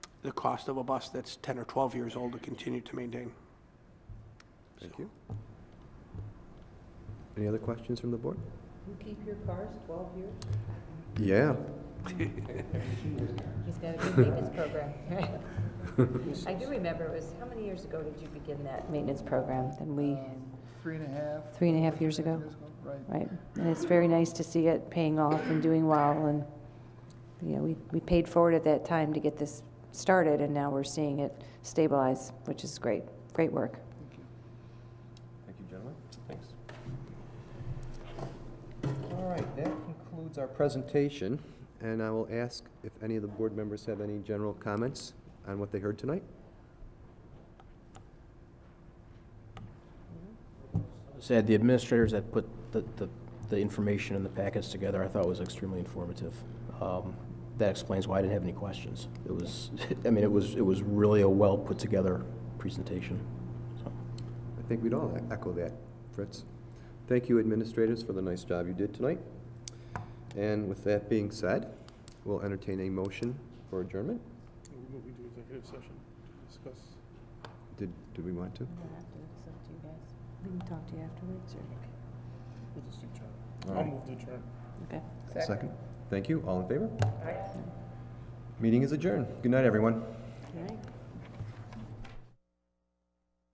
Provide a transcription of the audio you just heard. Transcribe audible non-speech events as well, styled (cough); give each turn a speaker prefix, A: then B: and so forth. A: the cost of a bus that's 10 or 12 years old to continue to maintain.
B: Thank you. Any other questions from the board?
C: You keep your cars 12 years?
B: Yeah.
C: He's got a good maintenance program. I do remember, it was, how many years ago did you begin that maintenance program? Then we,
D: Three and a half
C: three and a half years ago,
D: years ago, right.
C: right? And it's very nice to see it paying off and doing well, and, you know, we, we paid forward at that time to get this started, and now we're seeing it stabilize, which is great, great work.
B: Thank you, gentlemen. Thanks. All right, that concludes our presentation, and I will ask if any of the board members have any general comments on what they heard tonight?
E: Said the administrators that put the, the, the information and the packets together, I thought was extremely informative. Um, That explains why I didn't have any questions. It was, (laughs) I mean, it was, it was really a well-put-together presentation. So,
B: I think we'd all e-, echo that, Fritz. Thank you, administrators, for the nice job you did tonight. And with that being said, we'll entertain a motion for adjournment.
F: We're moving to executive session to discuss.
B: Did, did we want to?
C: We can talk to you afterwards, or?
F: We'll just adjourn.
B: All
F: I'll
B: right.
F: move to adjourn.
C: Okay.
B: Second. Thank you. All in favor? Meeting is adjourned. Good night, everyone.
C: All right.